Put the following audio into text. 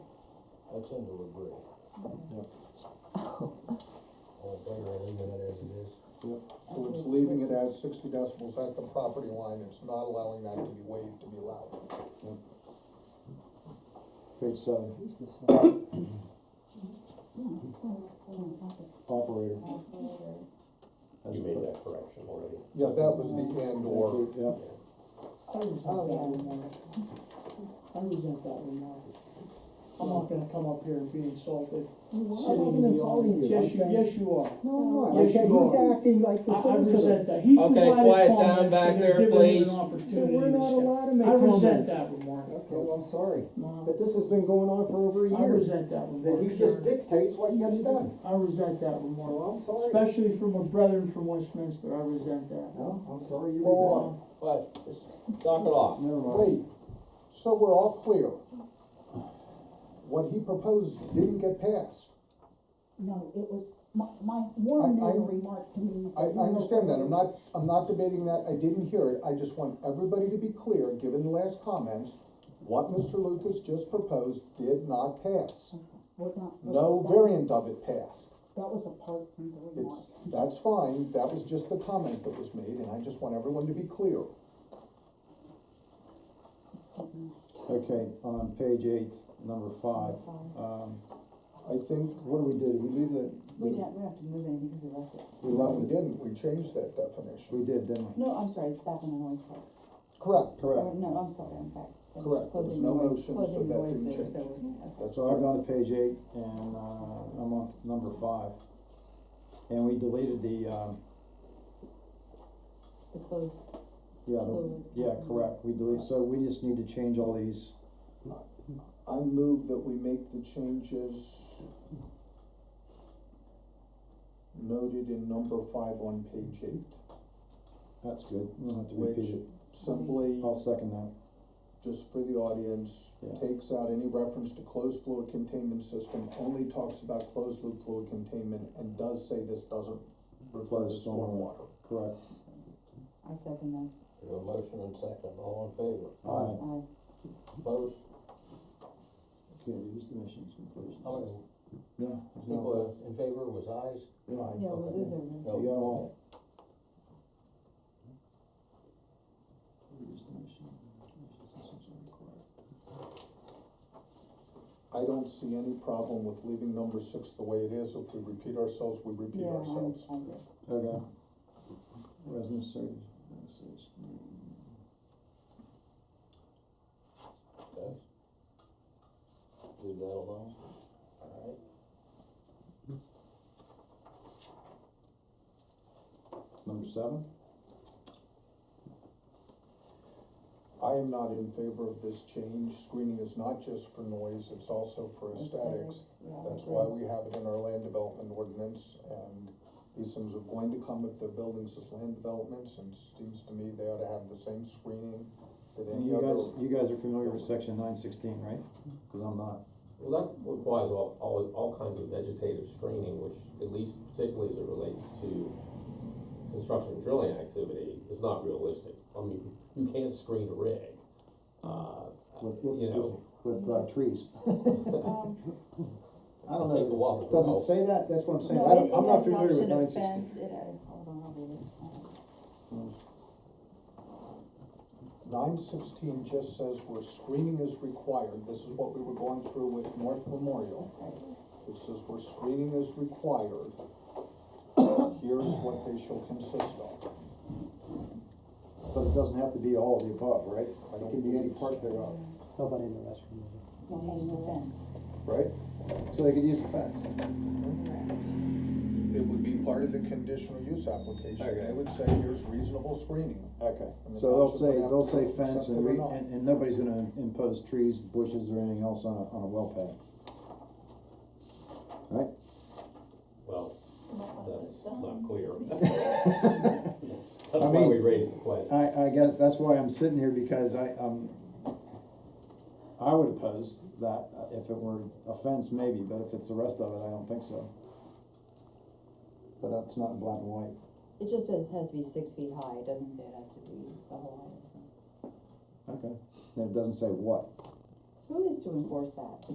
tend to agree. All in favor of leaving it as it is? So it's leaving it as sixty decibels at the property line, it's not allowing that to be waived to be loud. Page seven, Who's this? uh, Oh, operator. as You made per- that correction already. Yeah, that was the and or, Thank you, Yeah, I resent Oh, that yeah. one more. I resent that one more. I'm not gonna come up here and be insulted. What? Sitting wasn't in the insulting audience. you. I'm Yes, you, saying- yes, you are. no, I'm not, I Yes, said you he's are. acting like I, the I solicitor. resent that. He Okay, provided quiet down comments, and back they're there, giving him please. an Then opportunity We're to not share. allowed to make I comments. resent that remark. Okay, well, I'm sorry, No, but this has been going on for over a I year, resent that remark. that he just dictates what gets done. I resent that remark, Well, I'm sorry. especially from a brethren from Westminster, I resent that. No, I'm sorry, you Well, resent. Uh, But, just knock it off. Never mind. wait, so we're all clear. What he proposed didn't get passed. No, it was, my, my, Warren I- I- made a remark to me. I, I understand that, I'm not, I'm not debating that, I didn't hear it, I just want everybody to be clear, given the last comments, what Mr. Lucas just proposed did not pass. We're not- No that- variant of it passed. That was apart from the remark. It's, that's fine, that was just the comment that was made, and I just want everyone to be clear. It's getting Okay, on page eight, number five, Five. um, I think what do we do? We leave the. We don't, we don't have to move any because we left it. we left it in, we changed that definition. We did, didn't we? No, I'm sorry, it's back on the noise part. Correct, Or, Correct. no, I'm sorry, I'm back. Correct. There was Closing no the noise- motion, so closing the that noise didn't there, change. so we're- okay. So I've gone to page eight and, uh, I'm on number five. And we deleted the, um, The close, Uh-huh. yeah, the, Close. yeah, correct. We delete, so we just need to change all these. I move that we make the changes noted in number five on page eight, That's good. We don't have to which repeat it. simply, I'll second that. just for the audience, Yeah. takes out any reference to closed fluid containment system, only talks about closed loop fluid containment, and does say this doesn't refer to Closed stormwater. stormwater. Correct. I second that, We have a motion and second, all in favor? Aye. I, Opposed? Okay, reduce emissions completions. How many Yeah. people in favor was ayes? Yeah. yeah, well, Okay. those are. No. You got all. Reduced emission, emissions essentially required. I don't see any problem with leaving number six the way it is, if we repeat ourselves, we repeat Yeah, I'm, I'm ourselves. good. Okay. Resin surge, message. Okay. Leave that alone, alright. Number seven? I am not in favor of this change, screening is not just for noise, it's also for aesthetics. Aesthetics, yeah, I That's agree. why we have it in our land development ordinance, and these things are going to come if they're buildings as land developments, and seems to me they ought to have the same screening that And any you other. guys, you guys are familiar with section nine sixteen, right? Cause I'm not. Well, that requires all, all, all kinds of vegetative screening, which at least particularly as it relates to construction drilling activity, is not realistic. I mean, you can't screen a rig, uh, With- you know. With, uh, trees. Um, I don't Take a know, walk. that it doesn't say that, that's what I'm saying, no, I it- don't, it I'm not has an familiar with option of nine sixteen. fence, it had- hold on, I'll read it. Nine sixteen just says where screening is required, this is what we were going through with North Memorial. It says where screening is required, here's what they shall consist of. But it doesn't have to be all of the above, right? I It don't can be any believe part so. thereof, Nobody in the restroom. No, use a fence, right? So they could use the fence. correct. It would be part of the conditional use application, they Okay. would say here's reasonable screening. Okay, And the so they'll council say, would have they'll to say accept fence it and or we, not. and, and nobody's gonna impose trees, bushes or anything else on a, on a well pad. Right? Well, that's not clear. That's why mean- we raised the question. I, I guess that's why I'm sitting here because I, um, I would oppose that uh, if it were a fence maybe, but if it's the rest of it, I don't think so. But that's not in black and white. It just says it has to be six feet high, it doesn't say it has to be the whole height. Okay. And it doesn't say what. Who is to enforce that?